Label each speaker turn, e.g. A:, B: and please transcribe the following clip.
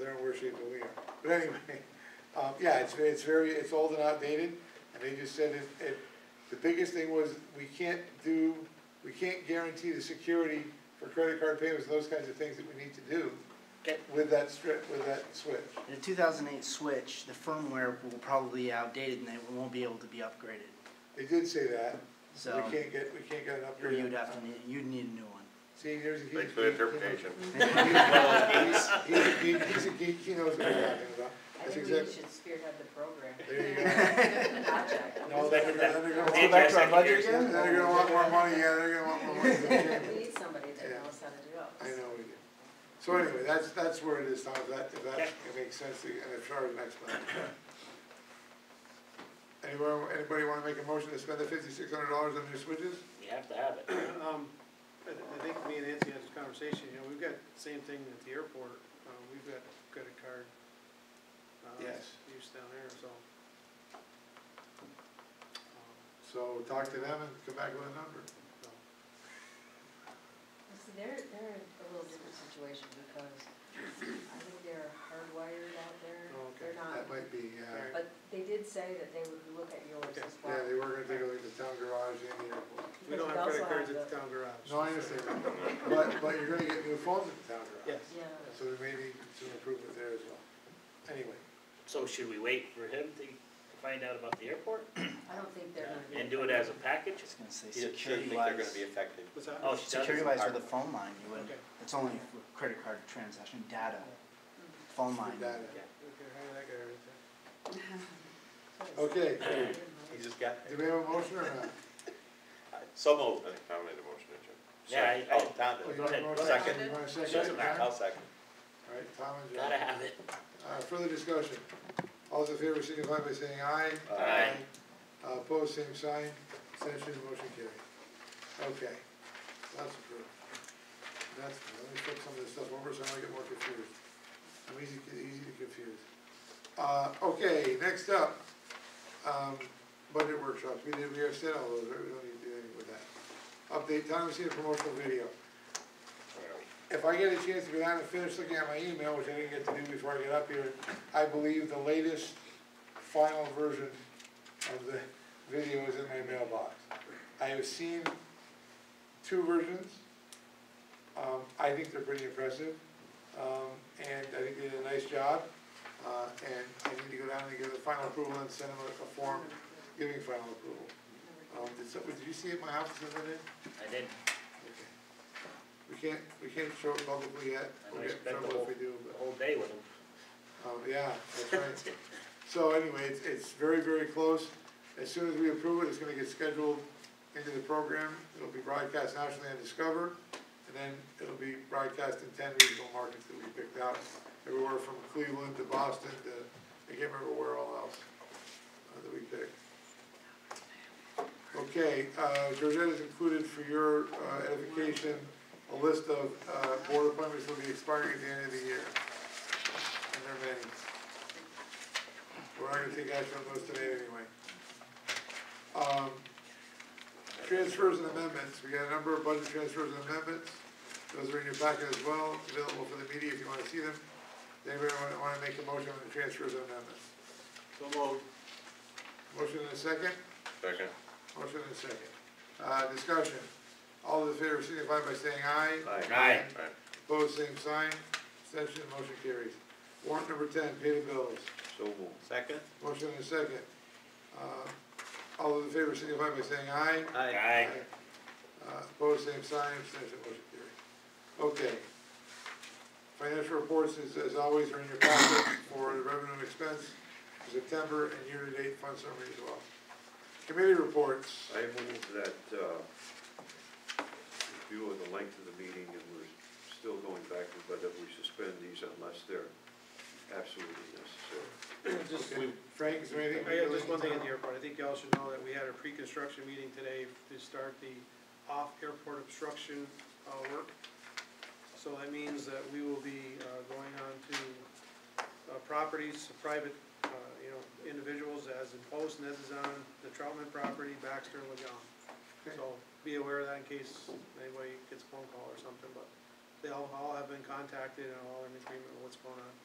A: frustrated that we are. But anyway, um, yeah, it's, it's very, it's old and outdated, and they just said it, it, the biggest thing was, we can't do, we can't guarantee the security for credit card payments, and those kinds of things that we need to do
B: Okay.
A: with that strip, with that switch.
B: The two thousand eight switch, the firmware will probably be outdated and they won't be able to be upgraded.
A: They did say that,
B: So
A: we can't get, we can't get an upgrade.
B: you'd
A: on-
B: have to need, you'd need a new one.
A: See, there's a. huge-
C: Thanks for the interpretation.
A: He's, he's a geek, he's a geek, he knows what we're talking about.
D: I
A: That's
D: think we
A: exactly,
D: should spearhead the program.
A: there you go.
D: Project.
A: No, they're gonna, then they're gonna
C: Did you
A: want back to our
C: second
A: budget
C: years?
A: again, then they're gonna want more money, yeah, they're gonna want more money. from the
D: We
A: chamber.
D: need somebody that
A: Yeah.
D: knows how to do
A: I
D: it.
A: know we do. So anyway, that's, that's where it is, Tom, if that, if that makes sense, to- and if Charlie next plan. Anyone, anybody wanna make a motion to spend the fifty-six hundred dollars on new switches?
E: You have to have it.
F: Um, I, I think me and Nancy had this conversation, you know, we've got the same thing at the airport, uh, we've got credit card. uh,
A: Yes.
F: Use down there, so. um,
A: So talk to them and come back with a number.
D: See, they're, they're in a little different situation because I think they're hardwired out there.
F: Oh, okay.
D: They're
A: That
D: not,
A: might be, uh,
D: but they did say that they would look at yours
F: Okay.
D: as well.
A: yeah, they were gonna take a look at the town garage and the airport.
F: We don't
D: Because we also
F: have credit cards
D: have
F: at
D: the-
F: the town garage.
A: No, I understand, that. but, but you're gonna get new phones at the town garage.
F: Yes.
D: Yeah,
A: So there may be some improvement there as well. Anyway,
E: So should we wait for him to find out about the airport
D: I don't think they're gonna be.
E: and do it as a package?
B: Just gonna say
C: You shouldn't
B: security
C: think they're
B: wise,
C: gonna be affected.
F: What's that?
E: Oh, she does?
B: security wise with a phone line, you would,
F: Okay.
B: it's only with credit card transaction data,
F: Mm-hmm.
B: phone line.
A: with that.
F: Okay, how did that go right there?
A: Okay,
C: You just got,
A: do we have a motion or not?
C: so moved. I think Tom made a motion, did you?
E: Yeah, I-
C: Oh, Tom
A: Oh,
C: did.
A: you want a
E: ahead.
A: motion?
C: Second.
A: You want a
C: Doesn't
A: second?
C: matter. I'll
A: All
C: second.
A: right, Tom and John.
E: Gotta have it.
A: Uh, further discussion. All those in favor signify by saying aye.
C: Aye.
A: Uh, opposed, same sign. Abstention, motion carried. Okay, that's approved. That's, let me flip some of this stuff over so I don't get more confused. I'm easy, easy to confuse. Uh, okay, next up, um, budget workshops. We did, we have said all those, right? We don't need to do anything with that. Update, Tom, we see a promotional video. If I get a chance to go down and finish looking at my email, which I didn't get to do before I get up here, I believe the latest final version of the video is in my mailbox. I have seen two versions. Um, I think they're pretty impressive, um, and I think they did a nice job. Uh, and I need to go down and get the final approval and send them a- a form giving final approval. Um, did some, did you see it at my house the other day?
E: I did,
A: Okay. We can't, we can't show it publicly yet,
E: I
A: we'll get in
E: expect the
A: trouble if
E: whole-
A: we do,
E: the
A: but,
E: whole day with him.
A: um, yeah, that's right. So anyway, it's, it's very, very close, as soon as we approve it, it's gonna get scheduled into the program, it'll be broadcast nationally on Discover, and then it'll be broadcast in ten regional markets that we picked out, everywhere from Cleveland to Boston to, I can't remember where all else, uh, that we picked. Okay, uh, Georgette has included for your uh, edification, a list of uh, board appointments that will be expiring at the end of the year. And there are many. We're not gonna take action on those today anyway. Um, Transfers and amendments, we got a number of budget transfers and amendments. Those are in your packet as well, available for the media if you wanna see them. Does Anybody wanna- wanna make a motion on the transfers and amendments?
F: So moved.
A: Motion in a second?
C: Second.
A: Motion and second. Uh, discussion. All those in favor signify by saying aye.
E: Aye.
C: Aye.
A: Opposed, same sign. Abstention, motion carries. Warrant number ten, pay the bills.
C: So moved. Second.
A: Motion and second. Uh, all those in favor signify by saying aye.
E: Aye.
A: Uh, opposed, same sign. Abstention, motion carries. Okay. Financial reports, as, as always, are in your packet for the revenue and expense for September and year-to-date fund summary as well. Committee reports.
G: I move that, uh, in view of the length of the meeting, and we're still going backward, but that we suspend these unless they're absolutely necessary.
F: Just,
A: Okay. Frank, is there anything?
F: I have just one thing in the airport, I think y'all should know that we had a pre-construction meeting today to start the off-airport obstruction, uh, work. So that means that we will be, uh, going on to, uh, properties, private, uh, you know, individuals as imposed, and this is on the Troutman property, Baxter and Legon. So be aware of that in case anybody gets a phone call or something, but they all, all have been contacted and all are in agreement with what's going on.